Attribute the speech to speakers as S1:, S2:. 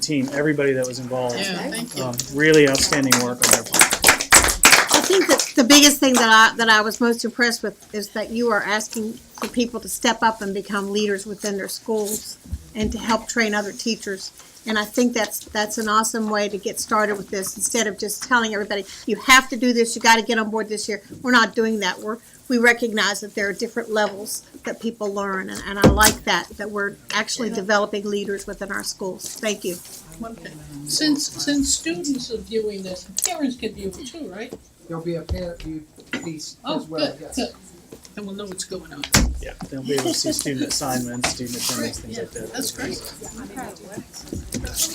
S1: team, everybody that was involved.
S2: Yeah, thank you.
S1: Um, really outstanding work on their part.
S3: I think that the biggest thing that I, that I was most impressed with is that you are asking for people to step up and become leaders within their schools and to help train other teachers. And I think that's, that's an awesome way to get started with this, instead of just telling everybody, you have to do this, you gotta get on board this year. We're not doing that. We're, we recognize that there are different levels that people learn, and, and I like that, that we're actually developing leaders within our schools. Thank you.
S2: One thing. Since, since students are viewing this, parents can view it too, right?
S4: There'll be a parent view piece
S2: Oh,
S4: as well,
S2: good,
S4: yes.
S2: good. And we'll know what's going on.
S1: Yeah. They'll be able to see student assignments, student attendance,
S2: Great,
S1: things
S2: yeah,
S1: like that.
S2: that's great.